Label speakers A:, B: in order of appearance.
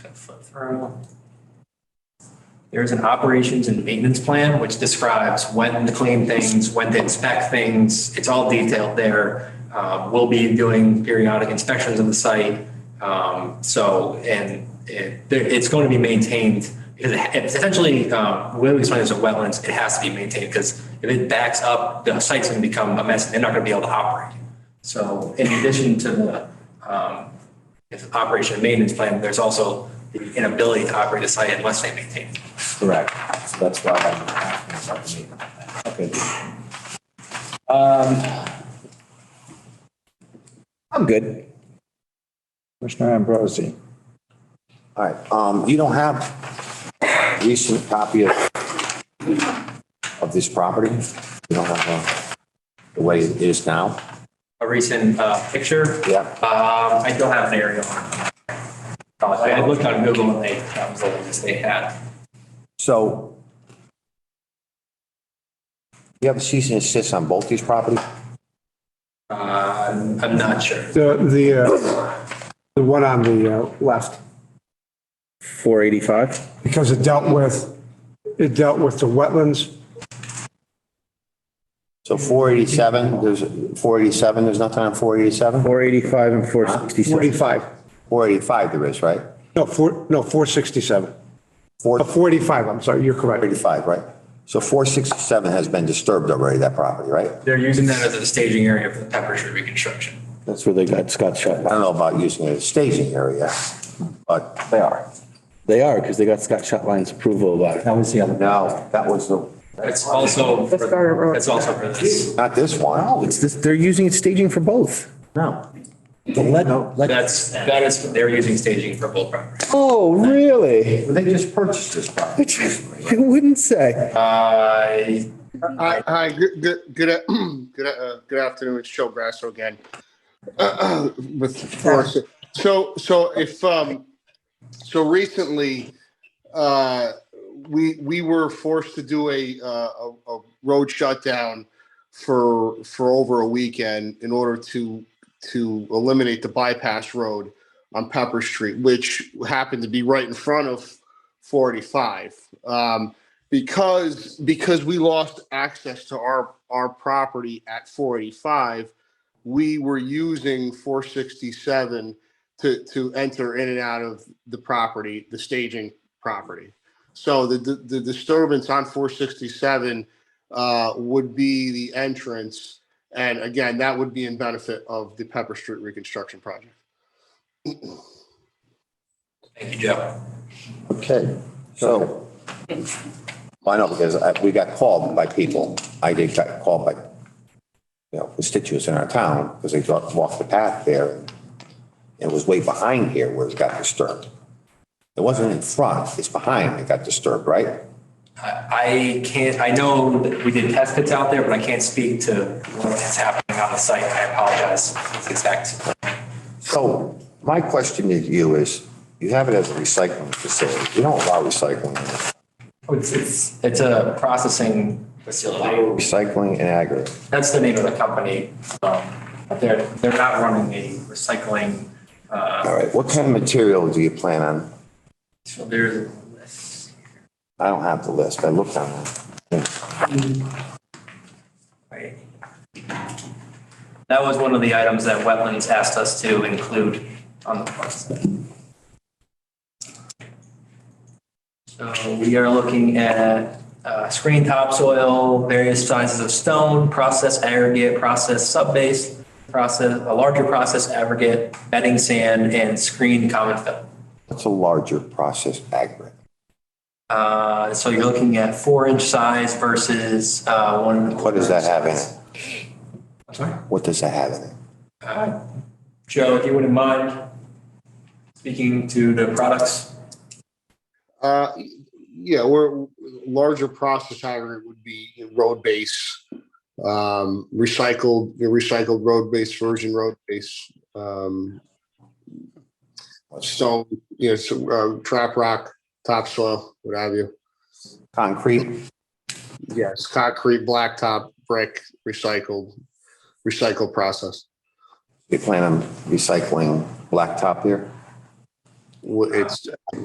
A: flip through. There's an operations and maintenance plan which describes when to clean things, when to inspect things. It's all detailed there. Uh, We'll be doing periodic inspections of the site. Um, So, and it- there- it's going to be maintained. because it- It's essentially, um, when we explain this as wetlands, it has to be maintained because if it backs up, the site's going to become a mess and they're not going to be able to operate. So in addition to the um, if operation and maintenance plan, there's also the inability to operate a site unless they maintain. it.
B: Correct. So that's why I'm asking about the meeting. Okay. Um, I'm good.
C: Commissioner Ambrosi.
B: All right. Um, you don't have recent copy of, of this property? You don't have uh, the way it is now?
A: A recent uh, picture.
B: Yeah.
A: Um, I don't have an aerial. Uh, I I looked on Google and they, that was the latest they had.
B: So you have a cease and desist on both these properties?
A: Uh, I'm not sure.
C: The, the, uh, the one on the uh, left,
D: 485?
C: because it dealt with, it dealt with the wetlands.
B: So 487, there's 487, there's nothing on 487?
D: 485 and 466.
C: 45,
B: 485 there is, right?
C: no, four, no, 467. Uh, 45, I'm sorry, you're correct.
B: 485, right? So 467 has been disturbed already, that property, right?
A: They're using that as a staging area for the Pepper Street reconstruction.
D: That's where they got, Scott shut
B: I
D: down.
B: don't know about using it as staging area, but. They are.
D: They are, because they got Scott Shotline's approval about it.
B: was the other. No, that was the,
A: That's also,
E: That's
A: for-
E: Garter Road.
A: that's also for this.
B: not this one.
D: Oh, it's this, they're using it staging for both.
B: No.
A: That's, that is, they're using staging for both properties.
D: Oh, really?
B: They just purchased this property.
D: I wouldn't say.
A: Uh,
F: Hi, hi, good, good, good, a- good, uh, good afternoon. It's Joe Grasso again. With, Forest. so, so if, um, so recently, uh, we, we were forced to do a, uh, a, a road shutdown for, for over a weekend in order to, to eliminate the bypass road on Pepper Street, which happened to be right in front of 45. Um, because because we lost access to our our property at 485 we were using 467 to to enter in and out of the property the staging property so the the, the disturbance on 467 uh, would be the entrance and again that would be in benefit of the pepper street reconstruction project
A: Thank you, Joe.
B: Okay, so. I know, because I- we got called by people, I did got called by, you know, constituents in our town, because they thought, walked the path there, and it was way behind here where it got disturbed. It wasn't in front, it's behind, it got disturbed, right?
A: I I can't, I know that we did test pits out there, but I can't speak to what's happening on the site. I apologize. It's exact.
B: So my question to you is, you have it as a recycling facility, you don't allow recycling,
A: It's, it's, it's a processing facility.
B: recycling and aggregate.
A: That's the name of the company. Um, But they're, they're not running a recycling, uh,
B: All right, what kind of material do you plan on?
A: so there's a list.
B: I don't have the list, I looked on that.
A: Right. That was one of the items that Wetlands asked us to include on the park side. So we are looking at uh, screen topsoil, various sizes of stone, process aggregate, process subbase, process, a larger process aggregate, bedding sand, and screen common fill.
B: What's a larger process aggregate?
A: Uh, So you're looking at four inch size versus uh, one. and a
B: What does that
A: quarter
B: have in
A: size.
B: it?
A: I'm sorry?
B: What does that have in it?
A: Uh, Joe, if you wouldn't mind speaking to the products.
F: Uh, yeah, we're larger process aggregate would be road base, um, recycled, the recycled road base, virgin road base. Um, stone, you know, so, uh, trap rock, topsoil, what have you.
B: Concrete?
F: Yes. Concrete, blacktop, brick, recycled, recycled process.
B: You plan on recycling blacktop here?
F: w- it's